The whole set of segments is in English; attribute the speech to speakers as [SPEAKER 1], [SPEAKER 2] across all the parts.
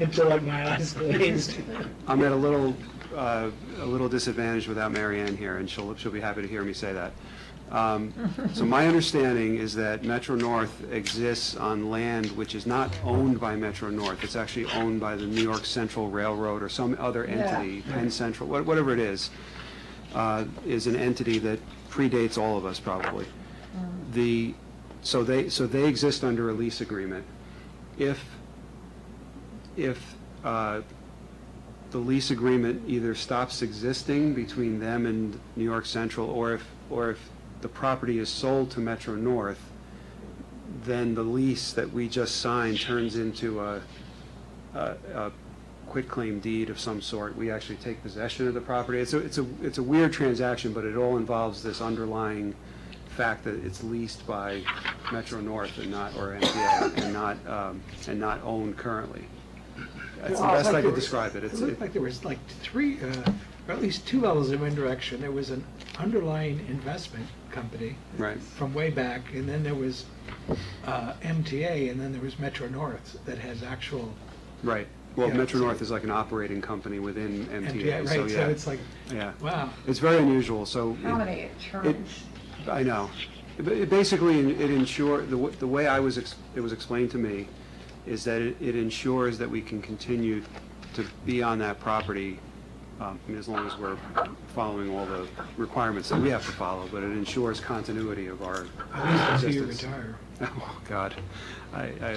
[SPEAKER 1] until like my eyes glazed.
[SPEAKER 2] I'm at a little, uh, a little disadvantage without Mary Ann here, and she'll, she'll be happy to hear me say that. Um, So my understanding is that Metro North exists on land which is not owned by Metro North. It's actually owned by the New York Central Railroad or some other entity, Penn Central, what- whatever it is, uh, is an entity that predates all of us probably. The, so they, so they exist under a lease agreement. If, if uh, the lease agreement either stops existing between them and New York Central, or if, or if the property is sold to Metro North, then the lease that we just signed turns into a, a, a quitclaim deed of some sort. We actually take possession of the property. It's a, it's a, it's a weird transaction, but it all involves this underlying fact that it's leased by Metro North and not, or MTA, and not, um, and not owned currently. That's the
[SPEAKER 1] Well,
[SPEAKER 2] best
[SPEAKER 1] like
[SPEAKER 2] I
[SPEAKER 1] there
[SPEAKER 2] could
[SPEAKER 1] was-
[SPEAKER 2] describe it.
[SPEAKER 1] It
[SPEAKER 2] It's,
[SPEAKER 1] looked
[SPEAKER 2] it-
[SPEAKER 1] like there was like three, uh, or at least two levels of indirection. There was an underlying investment company
[SPEAKER 2] right.
[SPEAKER 1] from way back, and then there was uh, MTA, and then there was Metro North that has actual
[SPEAKER 2] Right. Well,
[SPEAKER 1] Yeah,
[SPEAKER 2] Metro
[SPEAKER 1] so-
[SPEAKER 2] North is like an operating company within
[SPEAKER 1] MTA,
[SPEAKER 2] MTA, so
[SPEAKER 1] right? So
[SPEAKER 2] yeah.
[SPEAKER 1] it's like,
[SPEAKER 2] Yeah.
[SPEAKER 1] wow.
[SPEAKER 2] It's very unusual, so.
[SPEAKER 3] How
[SPEAKER 2] it-
[SPEAKER 3] many terms?
[SPEAKER 2] I know. It- It basically, it ensure, the, w- the way I was, ex- it was explained to me, is that it it ensures that we can continue to be on that property, um, I mean, as long as we're following all the requirements that we have to follow, but it ensures continuity of our
[SPEAKER 1] At least until you
[SPEAKER 2] existence.
[SPEAKER 1] retire.
[SPEAKER 2] Oh, God. I, I,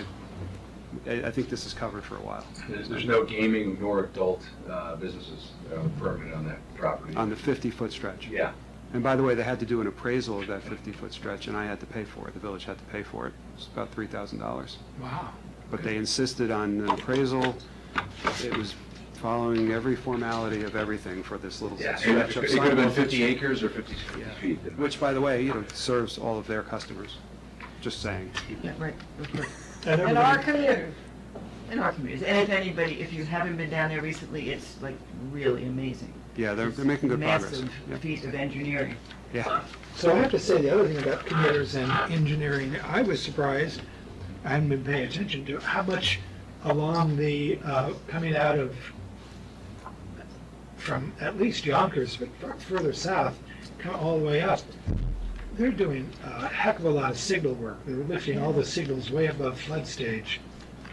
[SPEAKER 2] I I think this is covered for a while.
[SPEAKER 4] There's there's no gaming nor adult uh, businesses uh, permitted on that property.
[SPEAKER 2] on the 50-foot stretch.
[SPEAKER 4] Yeah,
[SPEAKER 2] And by the way, they had to do an appraisal of that 50-foot stretch, and I had to pay for it, the village had to pay for it. It's about $3,000.
[SPEAKER 1] Wow.
[SPEAKER 2] But they insisted on an appraisal. It was following every formality of everything for this little
[SPEAKER 4] yeah.
[SPEAKER 2] stretch
[SPEAKER 4] It
[SPEAKER 2] of
[SPEAKER 4] could it could have been
[SPEAKER 2] sidewalk,
[SPEAKER 4] 50 acres or 50 feet.
[SPEAKER 2] Which, by the way, you know, serves all of their customers, just saying.
[SPEAKER 5] Right.
[SPEAKER 1] And
[SPEAKER 5] In our
[SPEAKER 1] everybody-
[SPEAKER 5] community, in our community, and if anybody, if you haven't been down there recently, it's like really amazing.
[SPEAKER 2] Yeah, they're,
[SPEAKER 5] It's
[SPEAKER 2] they're making good progress. Yeah.
[SPEAKER 5] Massive feat of engineering.
[SPEAKER 2] Yeah,
[SPEAKER 1] So I have to say, the other thing about computers and engineering, I was surprised, I hadn't been paying attention to how much along the, uh, coming out of, from at least Yonkers, but far- further south, come all the way up, they're doing a heck of a lot of signal work. They're lifting all the signals way above flood stage,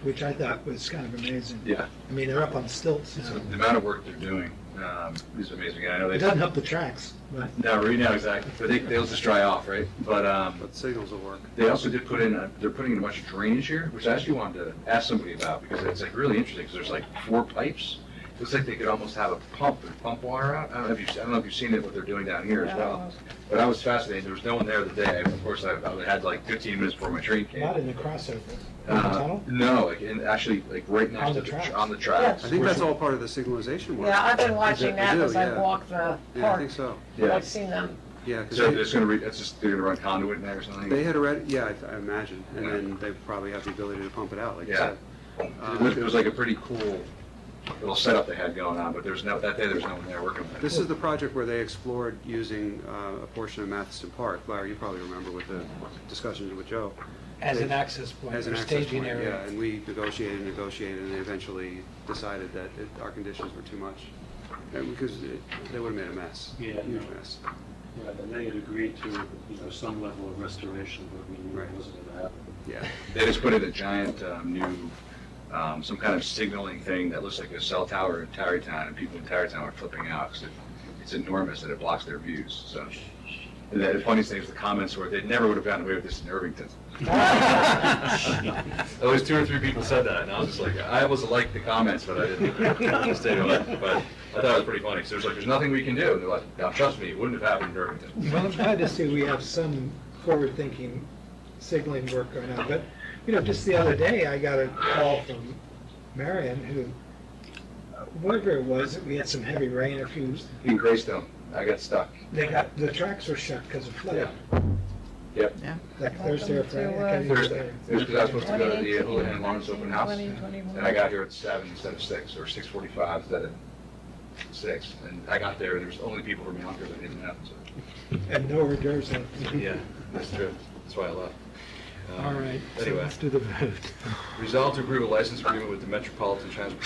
[SPEAKER 1] which I thought was kind of amazing.
[SPEAKER 4] Yeah.
[SPEAKER 1] I mean, they're up on stilts
[SPEAKER 4] So
[SPEAKER 1] now.
[SPEAKER 4] The amount of work they're doing um, is amazing. And I know
[SPEAKER 1] It
[SPEAKER 4] they,
[SPEAKER 1] doesn't help the tracks, but
[SPEAKER 4] no, right now, exactly. But they, they'll just dry off, right? But um,
[SPEAKER 2] but signals will work.
[SPEAKER 4] they also did put in, a- they're putting in a bunch of drainage here, which I actually wanted to ask somebody about because it's like really interesting because there's like four pipes. Looks like they could almost have a pump and pump water out. I don't know if you've, I don't know if you've seen it, what they're doing down here as well. But I was fascinated. There was no one there the day. Of course, I, I had like 15 minutes before my train came.
[SPEAKER 1] not in the crossover. In the
[SPEAKER 4] Uh,
[SPEAKER 1] tunnel?
[SPEAKER 4] no, like, in actually, like right
[SPEAKER 1] On
[SPEAKER 4] next
[SPEAKER 1] the
[SPEAKER 4] to the,
[SPEAKER 1] tracks.
[SPEAKER 4] tr- on the tracks.
[SPEAKER 2] I think that's all part of the signalization work.
[SPEAKER 3] Yeah, I've been watching
[SPEAKER 2] Exactly,
[SPEAKER 3] that
[SPEAKER 2] do,
[SPEAKER 3] as I
[SPEAKER 2] yeah.
[SPEAKER 3] walk the
[SPEAKER 2] Yeah, I
[SPEAKER 3] park.
[SPEAKER 2] think so,
[SPEAKER 4] Yeah.
[SPEAKER 3] I've seen them.
[SPEAKER 2] yeah. 'cause
[SPEAKER 4] So
[SPEAKER 2] they-
[SPEAKER 4] they're just gonna re, it's just, they're gonna run conduit in there or something?
[SPEAKER 2] They
[SPEAKER 4] It
[SPEAKER 2] had already, yeah, I- I imagine, and then they probably have the ability to pump it out, like you
[SPEAKER 4] Yeah.
[SPEAKER 2] said. Uh,
[SPEAKER 4] was, Uh, it was like a pretty cool little setup they had going on, but there's no, that day there's no one there working with it.
[SPEAKER 2] This is the project where they explored using uh, a portion of Matheson Park, Larry, you probably remember with the discussions with Joe.
[SPEAKER 1] As an access point,
[SPEAKER 2] As
[SPEAKER 1] or
[SPEAKER 2] an access
[SPEAKER 1] staging
[SPEAKER 2] point, yeah,
[SPEAKER 1] area.
[SPEAKER 2] and we negotiated, and negotiated, and they eventually decided that it- our conditions were too much, And because it- they would've made a mess,
[SPEAKER 6] Yeah,
[SPEAKER 2] huge
[SPEAKER 6] no.
[SPEAKER 2] mess.
[SPEAKER 6] Yeah, and they had agreed to, you know, some level of restoration, but we knew
[SPEAKER 2] Right.
[SPEAKER 6] it wasn't gonna happen.
[SPEAKER 2] Yeah,
[SPEAKER 4] They just put in a giant, um, new, um, some kind of signaling thing that looks like a cell tower in Tarrytown, and people in Tarrytown are flipping out, 'cause it, it's enormous and it blocks their views, so. And the funniest thing is the comments were, they never would have gotten away with this in Irvington. At least two or three people said that, and I was just like, I almost liked the comments, but I didn't stay on it. But I thought it was pretty funny, because there's like, there's nothing we can do, and they're like, now, trust me, it wouldn't have happened in Irvington.
[SPEAKER 1] Well, I'm glad to see we have some forward-thinking signaling work going on, but, you know, just the other day, I got a call from Marion, who, uh, whatever it was, we had some heavy rain, a few,
[SPEAKER 4] In Greystone, I got stuck.
[SPEAKER 1] they got, the tracks were shut because of flooding,
[SPEAKER 4] Yep.
[SPEAKER 1] like Thursday or
[SPEAKER 3] Welcome to, uh,
[SPEAKER 1] Friday. I can't even
[SPEAKER 4] Thursday,
[SPEAKER 1] say.
[SPEAKER 4] it was because I was supposed to go to the
[SPEAKER 3] 2018,
[SPEAKER 4] Houlihan Lawrence Open House,
[SPEAKER 3] 2021.
[SPEAKER 4] and I got here at seven instead of six, or six forty-five instead of six, and I got there, and there was only people from Yonkers I didn't know, so.
[SPEAKER 1] And no hors d'oeuvres left.
[SPEAKER 4] Yeah, that's true, that's why I left. Um,
[SPEAKER 1] All right, so
[SPEAKER 4] Anyway,
[SPEAKER 1] let's do the vote.
[SPEAKER 4] resolve to approve a license agreement with the Metropolitan Transportation